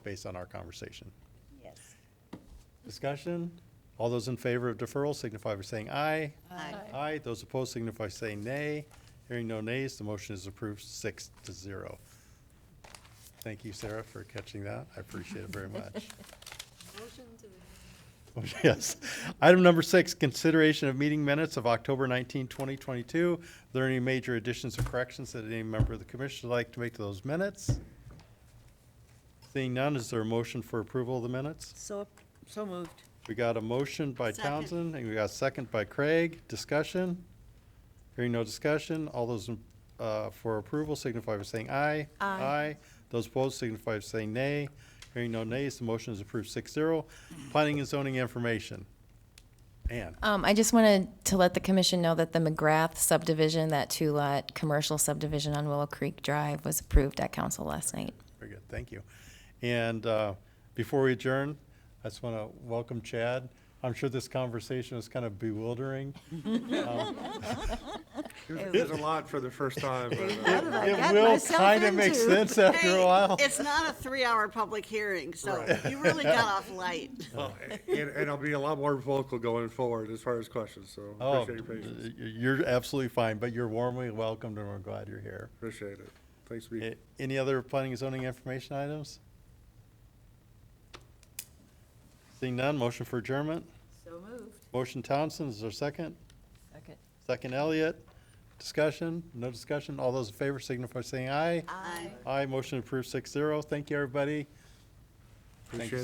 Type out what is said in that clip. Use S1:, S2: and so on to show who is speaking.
S1: based on our conversation.
S2: Yes.
S1: Discussion? All those in favor of deferral signify by saying aye.
S2: Aye.
S1: Aye. Those opposed signify by saying nay. Hearing no nays, the motion is approved six to zero. Thank you, Sarah, for catching that. I appreciate it very much. Oh, Yes. Item number six, consideration of meeting minutes of October 19, 2022. Are there any major additions or corrections that any member of the commission would like to make to those minutes? Seeing none, is there a motion for approval of the minutes?
S2: So, so moved.
S1: We got a motion by
S2: Second.
S1: Townsend, and we got a second by Craig. Discussion? Hearing no discussion, all those in- uh, for approval signify by saying aye.
S2: Aye.
S1: Those opposed signify by saying nay. Hearing no nays, the motion is approved six zero. Planning and zoning information. Ann,
S3: Um, I just wanted to let the commission know that the McGrath subdivision, that two-lot commercial subdivision on Willow Creek Drive, was approved at council last night.
S1: very good, thank you. And uh, before we adjourn, I just want to welcome Chad. I'm sure this conversation was kind of bewildering.
S4: There's there's a lot for the first time, but uh,
S2: I
S1: It
S2: got
S1: will
S2: myself
S1: kind of make
S2: into?
S1: sense after a
S5: Hey,
S1: while.
S5: It's not a three-hour public hearing, so you really got off light.
S4: and, and I'll be a lot more vocal going forward as far as questions, so
S1: Oh,
S4: appreciate your patience.
S1: y- You're absolutely fine, but you're warmly welcomed and we're glad you're here.
S4: Appreciate it. Thanks, for
S1: A- Any other planning and zoning information items? Seeing none, motion for adjournment?
S2: So moved.
S1: Motion Townsend, is there a second?
S2: Second.
S1: Second Elliott? Discussion? No discussion? All those in favor signify by saying aye.
S5: Aye.
S1: Aye, motion approved six zero. Thank you, everybody.
S4: Appreciate